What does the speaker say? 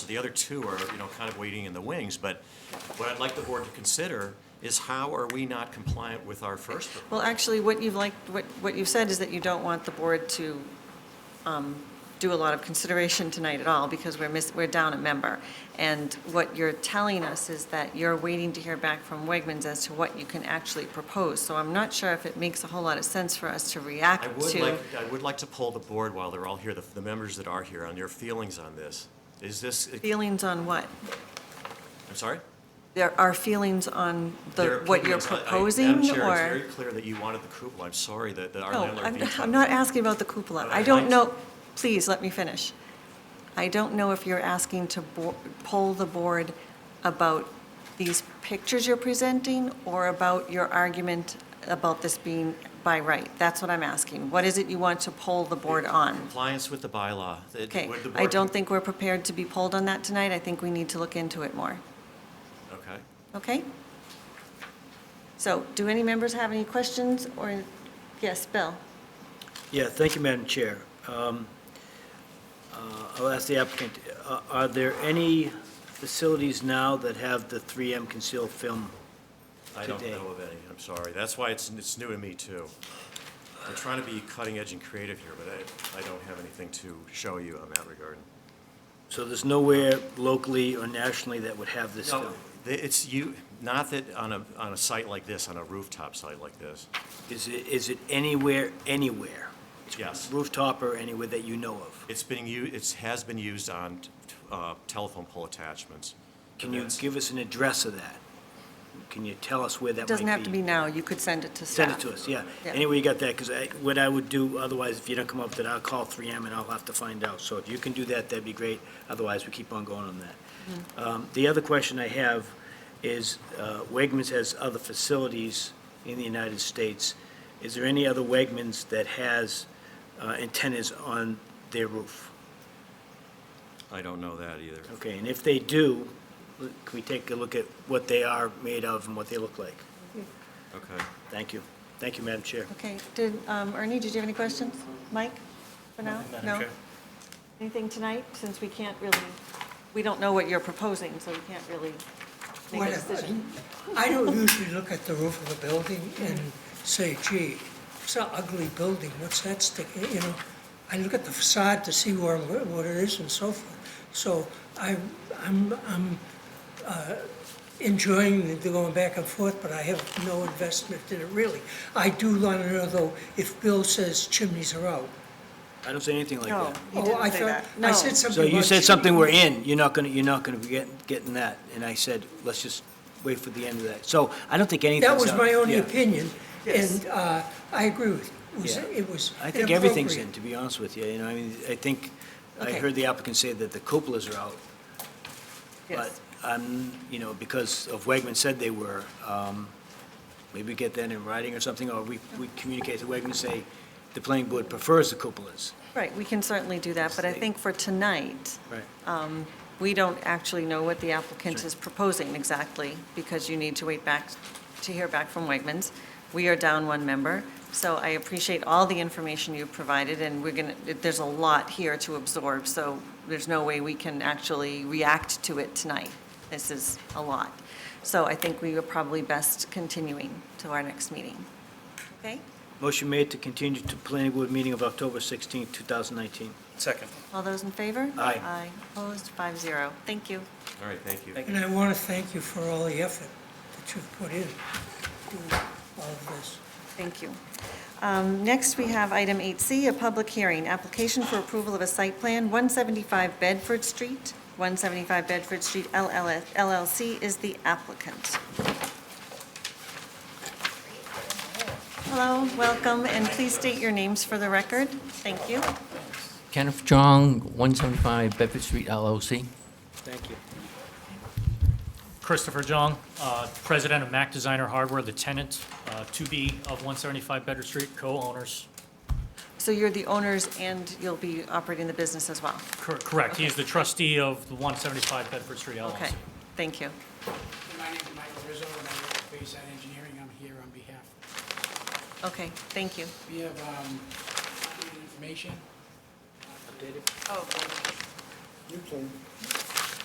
The other two are, you know, kind of waiting in the wings, but what I'd like the board to consider is how are we not compliant with our first proposal? Well, actually, what you've like, what, what you've said is that you don't want the board to um, do a lot of consideration tonight at all, because we're miss, we're down a member. And what you're telling us is that you're waiting to hear back from Wegmans as to what you can actually propose. So I'm not sure if it makes a whole lot of sense for us to react I to. would like, I would like to poll the board while they're all here, the, the members that are here, on their feelings on this. Is this, Feelings on what? I'm sorry? There are feelings on Their the, what you're opinions. I- I- proposing, or? Madam Chair, it's very clear that you wanted the cupola. I'm sorry that, that our No, landlord I'm, vetoed. I'm not asking about the cupola. But I I'd like don't to- know, please, let me finish. I don't know if you're asking to bo- poll the board about these pictures you're presenting or about your argument about this being by right. That's what I'm asking. What is it you want to poll the board on? Compliance with the bylaw. that- Okay, would the I board- don't think we're prepared to be polled on that tonight. I think we need to look into it more. Okay. Okay? So, do any members have any questions or, yes, Bill? Yeah, thank you, Madam Chair. Um, uh, I'll ask the applicant, uh, are there any facilities now that have the 3M concealed film? I don't Today. know of any. I'm sorry. That's why it's, it's new to me, too. I'm trying to be cutting edge and creative here, but I, I don't have anything to show you on that regard. So there's nowhere locally or nationally that would have this No, film? the- it's you, not that on a, on a site like this, on a rooftop site like this. Is it, is it anywhere, anywhere? Yes. Rooftop or anywhere that you know of? It's being u, it has been used on uh, telephone pole attachments. Can you That's- give us an address of that? Can you tell us where that might It be? doesn't have to be now. You could send it to staff. Send it to us, yeah. Yeah. Anyway, you got that, because what I would do, otherwise, if you don't come up with it, I'll call 3M and I'll have to find out. So if you can do that, that'd be great. Otherwise, we keep on going on Mm-hmm. that. Um, The other question I have is, uh, Wegmans has other facilities in the United States. Is there any other Wegmans that has uh, antennas on their roof? I don't know that either. Okay, and if they do, l- can we take a look at what they are made of and what they look like? Okay. Thank you. Thank you, Madam Chair. Okay, did, um, Ernie, did you have any questions? Mike, for now? Nothing, Madam No. Chair. Anything tonight, since we can't really, we don't know what you're proposing, so we can't really make a Whatever. decision. I don't usually look at the roof of a building and say, gee, it's an ugly building, what's that sticking, you know? I look at the facade to see where, what it is and so forth. So I, I'm, I'm uh, enjoying the going back and forth, but I have no investment in it really. I do want to know though, if Bill says chimneys are out. I don't say anything like No, that. he Oh, didn't I say thought- that. I No. said something So you about said something we're chimneys. in, you're not gonna, you're not gonna be get- getting that, and I said, let's just wait for the end of that. So I don't think anything's. That was out- my only yeah. opinion, and uh, I agree with you. It was- Yeah. It was I think everything's inappropriate. in, to be honest with you, you know, I mean, I think, I Okay. heard the applicant say that the cupolas are out, but, Yes. um, you know, because of Wegman said they were, um, maybe get that in writing or something, or we, we communicate to Wegman, say, the planning board prefers the cupolas. Right, we can certainly do that, but I think for tonight, Right. we don't actually know what the applicant is proposing exactly, because you need to wait back, to hear back from Wegmans. We are down one member, so I appreciate all the information you provided, and we're going to, there's a lot here to absorb, so there's no way we can actually react to it tonight. This is a lot. So I think we are probably best continuing to our next meeting. Okay? Motion made to continue to planning board meeting of October sixteenth, two thousand nineteen. Second. All those in favor? Aye. Aye. Opposed? Five zero. Thank you. All right, thank you. And I want to thank you for all the effort that you've put in to all of this. Thank you. Um, Next, we have item 8C, a public hearing, application for approval of a site plan, 175 Bedford Street. 175 Bedford Street LLS LLC is the applicant. Hello, welcome, and please state your names for the record. Thank you. Kenneth Jong, 175 Bedford Street LLC. Thank you. Christopher Jung, uh, president of Mac Designer Hardware, the tenant, uh, to be of 175 Bedford Street, co-owners. So you're the owners, and you'll be operating the business as well? Cor- Correct, he is the trustee of the 175 Bedford Street Okay, LLC. thank you. My name is Michael Rizzo, and I work for Bayside Engineering. I'm here on behalf. Okay, thank you. We have um, updated information. Oh, New plan.